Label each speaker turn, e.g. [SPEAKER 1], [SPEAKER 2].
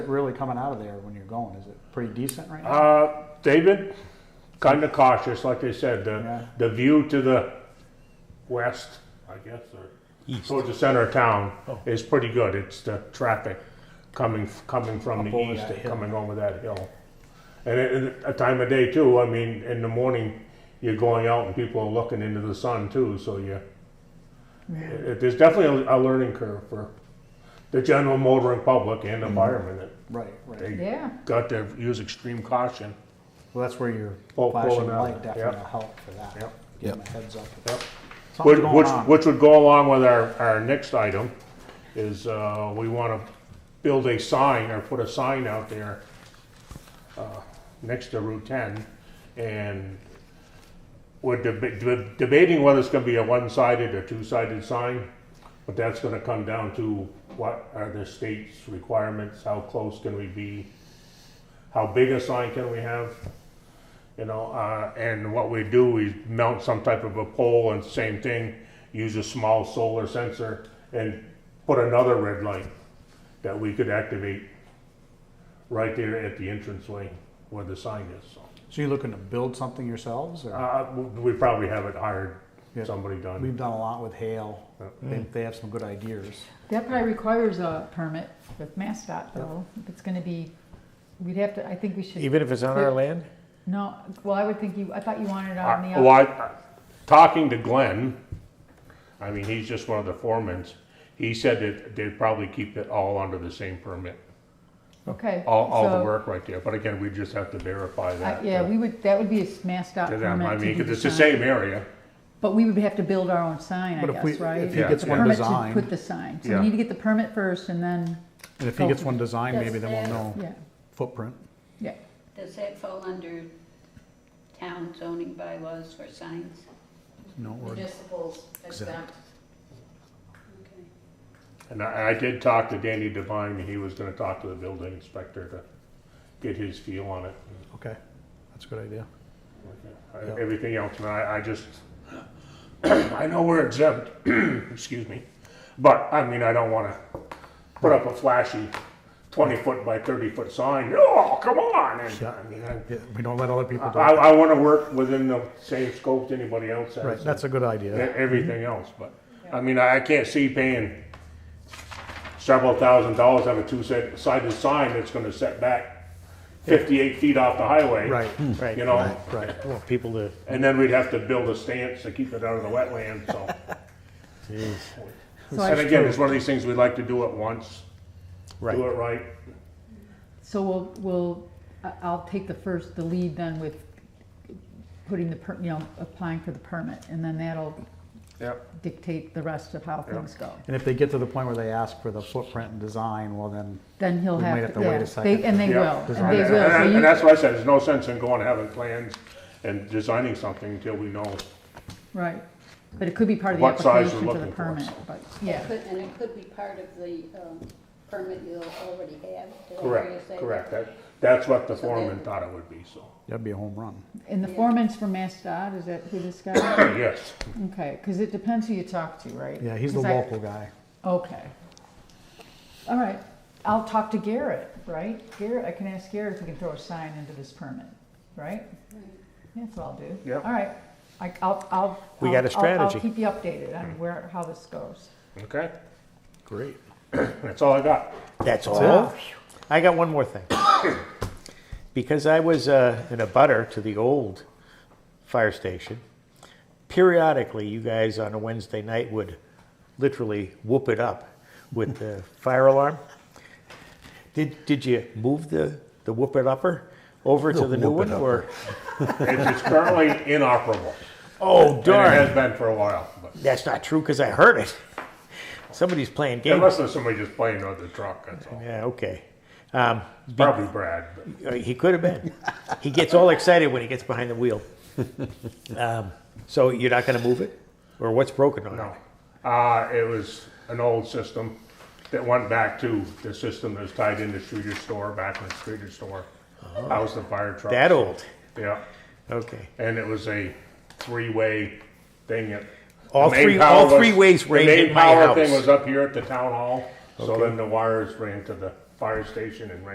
[SPEAKER 1] it really coming out of there when you're going? Is it pretty decent right now?
[SPEAKER 2] Uh, they've been kind of cautious, like they said. The
[SPEAKER 1] Yeah.
[SPEAKER 2] the view to the west, I guess, or
[SPEAKER 3] East.
[SPEAKER 2] towards the center of town
[SPEAKER 3] Oh.
[SPEAKER 2] is pretty good. It's the traffic coming coming from
[SPEAKER 1] Up
[SPEAKER 2] the
[SPEAKER 1] over
[SPEAKER 2] east
[SPEAKER 1] that
[SPEAKER 2] and
[SPEAKER 1] hill.
[SPEAKER 2] coming over that hill, and at- at a time of day too. I mean, in the morning, you're going out and people are looking into the sun too. So you, it, it- there's definitely a, a learning curve for the general motoring public
[SPEAKER 1] Mm-hmm.
[SPEAKER 2] and the firemen that
[SPEAKER 1] right, right.
[SPEAKER 2] they
[SPEAKER 4] Yeah.
[SPEAKER 2] got to use extreme caution.
[SPEAKER 1] Well, that's where your
[SPEAKER 2] Oh,
[SPEAKER 1] flashing
[SPEAKER 2] pulling out,
[SPEAKER 1] light definitely
[SPEAKER 2] yeah.
[SPEAKER 1] will help for that.
[SPEAKER 2] Yep.
[SPEAKER 1] Give 'em
[SPEAKER 3] Yep.
[SPEAKER 1] a heads up.
[SPEAKER 2] Yep.
[SPEAKER 1] Something's
[SPEAKER 2] Which,
[SPEAKER 1] going
[SPEAKER 2] which,
[SPEAKER 1] on.
[SPEAKER 2] which would go along with our, our next item, is, uh, we wanna build a sign or put a sign out there, uh, next to Route ten, and we're deba- de- debating whether it's gonna be a one-sided or two-sided sign, but that's gonna come down to what are the state's requirements, how close can we be, how big a sign can we have? you know, uh, and what we do is mount some type of a pole and same thing, use a small solar sensor and put another red light that we could activate right there at the entranceway where the sign is, so.
[SPEAKER 1] So you're looking to build something yourselves? Or?
[SPEAKER 2] Uh, we probably have it hired,
[SPEAKER 1] Yeah.
[SPEAKER 2] somebody done.
[SPEAKER 1] We've done a lot with Hale. They,
[SPEAKER 3] Mm.
[SPEAKER 1] they have some good ideas.
[SPEAKER 4] That probably requires a permit with MassDOT though. If it's gonna be, we'd have to, I think we should,
[SPEAKER 3] Even if it's on our land?
[SPEAKER 4] no, well, I would think you, I thought you wanted it
[SPEAKER 2] Uh,
[SPEAKER 4] on the.
[SPEAKER 2] Well, I- talking to Glenn, I mean, he's just one of the foremans, he said that they'd probably keep it all under the same permit,
[SPEAKER 4] Okay.
[SPEAKER 2] all, all the
[SPEAKER 4] so,
[SPEAKER 2] work right there, but again, we just have to verify
[SPEAKER 4] I-
[SPEAKER 2] that.
[SPEAKER 4] Yeah,
[SPEAKER 2] uh,
[SPEAKER 4] we would, that would be a MassDOT
[SPEAKER 2] To
[SPEAKER 4] permit.
[SPEAKER 2] them, I
[SPEAKER 4] to
[SPEAKER 2] mean,
[SPEAKER 4] do
[SPEAKER 2] 'cause it's the
[SPEAKER 4] sign.
[SPEAKER 2] same area.
[SPEAKER 4] But we would have to build our own sign, I
[SPEAKER 1] But if we-
[SPEAKER 4] guess, right?
[SPEAKER 1] if he
[SPEAKER 2] Yeah.
[SPEAKER 1] gets one
[SPEAKER 4] Permit to
[SPEAKER 1] design-
[SPEAKER 4] put the sign. So
[SPEAKER 2] Yeah.
[SPEAKER 4] we need to get the permit first and then,
[SPEAKER 1] And if he gets one designed, maybe then we'll
[SPEAKER 5] Yes,
[SPEAKER 1] know
[SPEAKER 4] yeah,
[SPEAKER 1] footprint.
[SPEAKER 4] yeah.
[SPEAKER 5] Does that fall under town zoning bylaws for signs?
[SPEAKER 1] No, or
[SPEAKER 6] Municipal's exempt.
[SPEAKER 5] Okay.
[SPEAKER 2] And I, I did talk to Danny Devine, and he was gonna talk to the building inspector to get his feel on it.
[SPEAKER 1] okay, that's a good idea.
[SPEAKER 2] Uh, Everything else, and I, I just, I know we're exempt, excuse me, but, I mean, I don't wanna put up a flashy twenty-foot by thirty-foot sign, oh, come on, and, I mean, I,
[SPEAKER 1] Yeah, we don't let other people do
[SPEAKER 2] I,
[SPEAKER 1] it.
[SPEAKER 2] I wanna work within the same scope that anybody else has.
[SPEAKER 1] Right, that's a good
[SPEAKER 2] e-
[SPEAKER 1] idea.
[SPEAKER 2] everything else, but, I mean, I I can't see paying several thousand dollars on a two-sided sign that's gonna set back fifty-eight feet off the highway.
[SPEAKER 1] Right,
[SPEAKER 3] Right.
[SPEAKER 2] You know,
[SPEAKER 1] right.
[SPEAKER 3] I want people to,
[SPEAKER 2] and then we'd have to build a stance to keep it out of the wetland, so. And
[SPEAKER 4] So I,
[SPEAKER 2] again, it's one of these things, we'd like to do it once, do it
[SPEAKER 3] right.
[SPEAKER 2] right,
[SPEAKER 4] so we'll, we'll, I- I'll take the first, the lead then with putting the, per- you know, applying for the permit. And then that'll
[SPEAKER 2] yep.
[SPEAKER 4] dictate the rest of how things go.
[SPEAKER 1] And if they get to the point where they ask for the footprint and design, well then,
[SPEAKER 4] Then he'll
[SPEAKER 1] We might
[SPEAKER 4] have to.
[SPEAKER 1] have to wait a
[SPEAKER 4] yeah,
[SPEAKER 1] second.
[SPEAKER 4] they- And they
[SPEAKER 2] Yeah.
[SPEAKER 4] will, and
[SPEAKER 1] Design
[SPEAKER 4] they
[SPEAKER 1] it.
[SPEAKER 4] will.
[SPEAKER 2] And,
[SPEAKER 4] So
[SPEAKER 2] and-
[SPEAKER 4] you-
[SPEAKER 2] and that's why I said, there's no sense in going and having plans and designing something until we know.
[SPEAKER 4] Right, but it could be part of the
[SPEAKER 2] What size
[SPEAKER 4] application
[SPEAKER 2] you're
[SPEAKER 4] for the
[SPEAKER 2] looking for.
[SPEAKER 4] permit, but,
[SPEAKER 5] Could-
[SPEAKER 4] yeah.
[SPEAKER 5] And it could be part of the um, permit you already have. did I hear you
[SPEAKER 2] Correct,
[SPEAKER 5] say that?
[SPEAKER 2] correct, that, that's what the
[SPEAKER 5] So
[SPEAKER 2] foreman
[SPEAKER 5] then-
[SPEAKER 2] thought it would be, so,
[SPEAKER 1] that'd be a home run.
[SPEAKER 4] And the
[SPEAKER 5] Yeah.
[SPEAKER 4] foreman's from MassDOT, is that who this guy?
[SPEAKER 2] yes.
[SPEAKER 4] Okay, because it depends who you talk to, right?
[SPEAKER 1] Yeah, he's the
[SPEAKER 4] 'Cause I-
[SPEAKER 1] local guy.
[SPEAKER 4] Okay. All right, I'll talk to Garrett, right? Garrett, I can ask Garrett if we can throw a sign into this permit, right? That's what I'll do.
[SPEAKER 2] Yep.
[SPEAKER 4] All right, I, I'll, I'll.
[SPEAKER 3] We
[SPEAKER 4] I'll-
[SPEAKER 3] got a
[SPEAKER 4] I'll-
[SPEAKER 3] strategy.
[SPEAKER 4] I'll keep you updated
[SPEAKER 2] Hmm.
[SPEAKER 4] on where, how this goes.
[SPEAKER 2] Okay,
[SPEAKER 3] Great.
[SPEAKER 2] that's all I got.
[SPEAKER 3] That's all? I got one more thing. Because I was uh, in a butter to the old fire station, periodically you guys on a Wednesday night would literally whoop it up with the fire alarm. Did, did you move the, the whoop it upper over to the new
[SPEAKER 7] whoop
[SPEAKER 3] one
[SPEAKER 7] it
[SPEAKER 3] or?
[SPEAKER 2] It's, it's currently inoperable,
[SPEAKER 3] Oh,
[SPEAKER 2] and it
[SPEAKER 3] darn.
[SPEAKER 2] has been for a while, but
[SPEAKER 3] That's not true because I heard it. Somebody's playing games.
[SPEAKER 2] unless there's somebody just playing on the truck, that's all.
[SPEAKER 3] Yeah, okay. Um,
[SPEAKER 2] Probably Brad, but.
[SPEAKER 3] Uh, He could have been. He gets all excited when he gets behind the wheel. Um, so you're not going to move it, or what's broken on
[SPEAKER 2] No.
[SPEAKER 3] it?
[SPEAKER 2] Uh, it was an old system that went back to the system that was tied into Streeter's store, back when Streeter's store housed the fire truck.
[SPEAKER 3] Oh. That old.
[SPEAKER 2] Yeah,
[SPEAKER 3] Okay.
[SPEAKER 2] and it was a three-way thing. that-
[SPEAKER 3] All
[SPEAKER 2] the main
[SPEAKER 3] three-
[SPEAKER 2] power
[SPEAKER 3] all three ways
[SPEAKER 2] the
[SPEAKER 3] ran
[SPEAKER 2] main
[SPEAKER 3] in my
[SPEAKER 2] power
[SPEAKER 3] house.
[SPEAKER 2] Thing was up here at the town hall, so
[SPEAKER 3] Okay.
[SPEAKER 2] then the wires ran to the fire station and ran